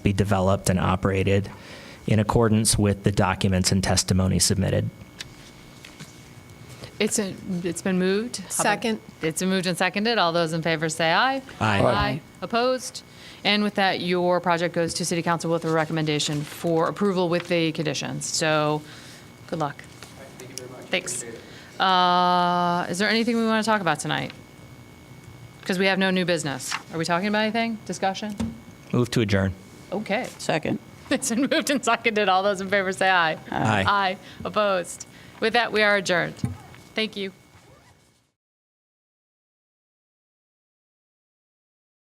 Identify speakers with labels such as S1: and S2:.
S1: be developed and operated in accordance with the documents and testimony submitted.
S2: It's, a- it's been moved.
S3: Second.
S2: It's been moved and seconded. All those in favor say aye.
S1: Aye. Aye.
S2: Opposed? And with that, your project goes to City Council with a recommendation for approval with the conditions. So, good luck. Thank you very much. Thanks. Uh, Is there anything we want to talk about tonight? Because we have no new business. Are we talking about anything? Discussion?
S1: Move to adjourn.
S2: Okay.
S4: Second.
S2: It's been moved and seconded. All those in favor say aye.
S1: Aye.
S2: Aye. Opposed? With that, we are adjourned. Thank you.